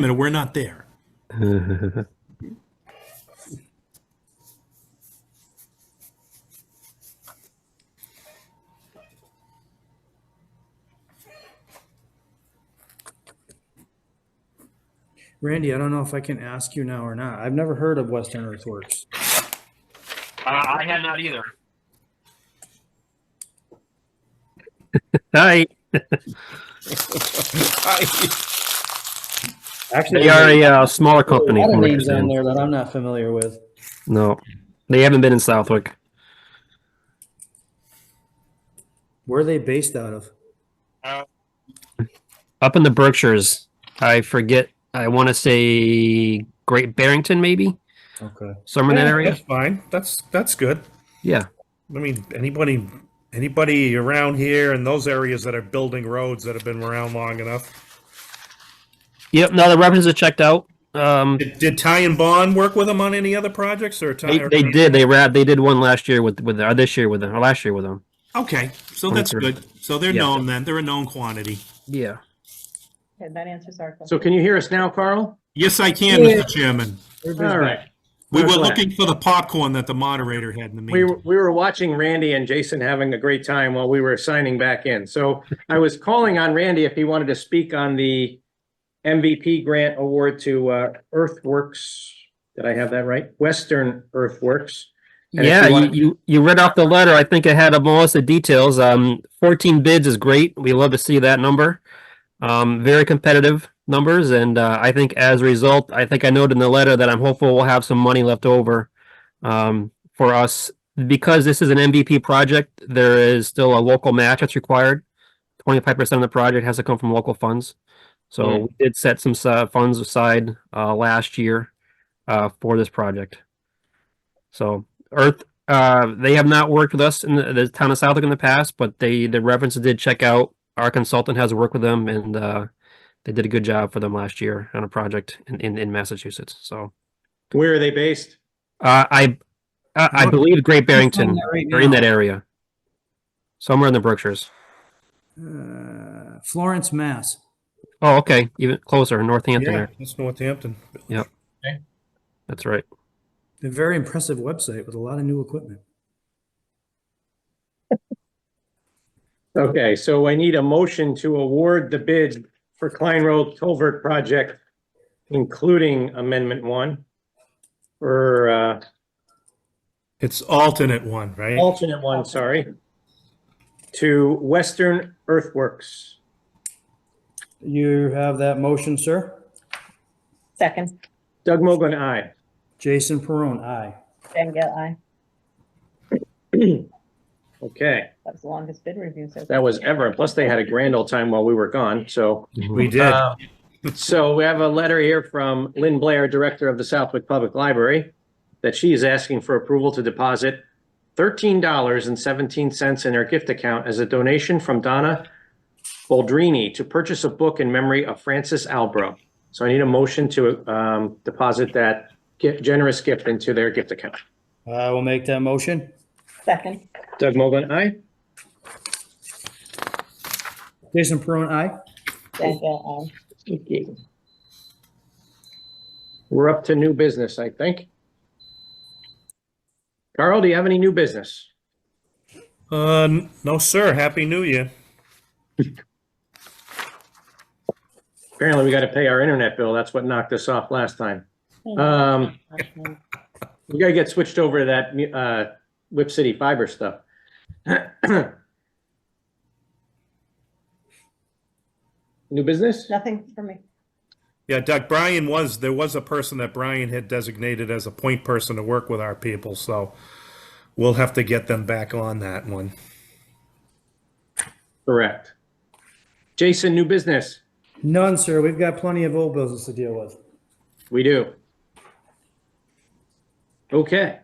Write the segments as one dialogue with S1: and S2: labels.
S1: minute, we're not there.
S2: Randy, I don't know if I can ask you now or not. I've never heard of Western Earthworks.
S3: Uh, I had not either.
S4: Hi,
S2: Actually,
S4: they are a uh, smaller company.
S2: A lot
S4: from
S2: of
S4: what I
S2: names on
S4: understand.
S2: there that I'm not familiar with.
S4: No, they haven't been in Southwick.
S2: Where are they based out of?
S4: Up in the Berkshires, I forget. I want to say Great Barrington, maybe
S2: Okay.
S4: somewhere in
S5: Yeah,
S4: that area.
S5: That's fine. That's that's good.
S4: Yeah,
S5: I mean, anybody anybody around here in those areas that are building roads that have been around long enough.
S4: yep. No, the references are checked out. Um,
S5: Did, did Ty and Bond work with them on any other projects or Ty?
S4: they, they did. They rap. They did one last year with with or this year with them or last year with them.
S1: Okay, so that's good. So they're
S4: Yeah.
S1: known then. They're a known quantity.
S4: Yeah.
S6: Okay, that answers our question.
S7: So can you hear us now, Carl?
S1: Yes, I can, Mr. Chairman.
S7: All right.
S1: We
S7: We're
S1: were
S7: glad.
S1: looking for the popcorn that the moderator had in the
S7: We,
S1: meeting.
S7: were- we were watching Randy and Jason having a great time while we were signing back in. So I was calling on Randy if he wanted to speak on the MVP grant award to uh, Earthworks. Did I have that right? Western Earthworks. And if
S4: yeah,
S7: you
S4: you,
S7: wanna-
S4: you you read off the letter. I think I had up most of the details. Um, fourteen bids is great. We love to see that number. Um, very competitive numbers, and uh, I think as a result, I think I noted in the letter that I'm hopeful we'll have some money left over um, for us because this is an MVP project. There is still a local match that's required. Twenty five percent of the project has to come from local funds. So
S7: Mm.
S4: we did set some uh, funds aside uh, last year uh, for this project. So Earth, uh, they have not worked with us in the, the town of Southwick in the past, but they the references did check out. Our consultant has worked with them, and uh, they did a good job for them last year on a project in in, in Massachusetts. So
S7: Where are they based?
S4: uh, I, I I believe Great Barrington are in that area, somewhere in the Berkshires.
S2: Uh, Florence, Mass.
S4: Oh, okay, even closer, Northampton.
S5: Yeah,
S4: There.
S5: that's Northampton.
S4: That's right.
S2: A very impressive website with a lot of new equipment.
S7: Okay, so I need a motion to award the bid for Klein Road Culvert Project, including Amendment One. Or uh,
S5: It's alternate one, right?
S4: Oh.
S7: alternate one, Oh, sorry. To Western Earthworks.
S2: You have that motion, sir?
S6: Second,
S7: Doug Mogul, aye.
S2: Jason Perone, aye.
S6: Jen Gill, aye.
S7: Okay,
S6: That was the longest bid review so far.
S7: that was ever. Plus, they had a grand old time while we were gone, so.
S5: We did.
S7: Uh, So we have a letter here from Lynn Blair, Director of the Southwick Public Library, that she is asking for approval to deposit $13.17 in her gift account as a donation from Donna Baldrini to purchase a book in memory of Francis Albro. So I need a motion to um, deposit that gi- generous gift into their gift account.
S2: I will make that motion.
S6: Second,
S7: Doug Mogul, aye?
S2: Jason Perone, aye.
S6: Jen Gill, aye.
S7: We're up to new business, I think. Carl, do you have any new business?
S5: Uh, n- no, sir. Happy New Year.
S7: Apparently, we got to pay our internet bill. That's what knocked us off last time. Um, we got to get switched over to that, uh, Whip City fiber stuff. New business?
S6: Nothing for me.
S5: Yeah, Doug, Brian was, there was a person that Brian had designated as a point person to work with our people, so we'll have to get them back on that one.
S7: Correct. Jason, new business?
S2: None, sir. We've got plenty of old business to deal with.
S7: We do. Okay.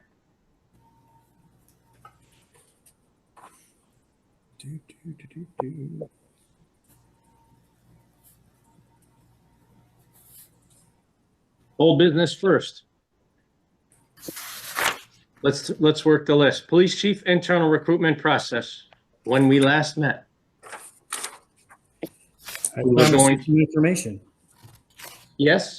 S7: Old business first. Let's, let's work the list. Police chief internal recruitment process, when we last met.
S2: I
S7: We're
S2: promise
S7: going-
S2: you some Information.
S7: Yes?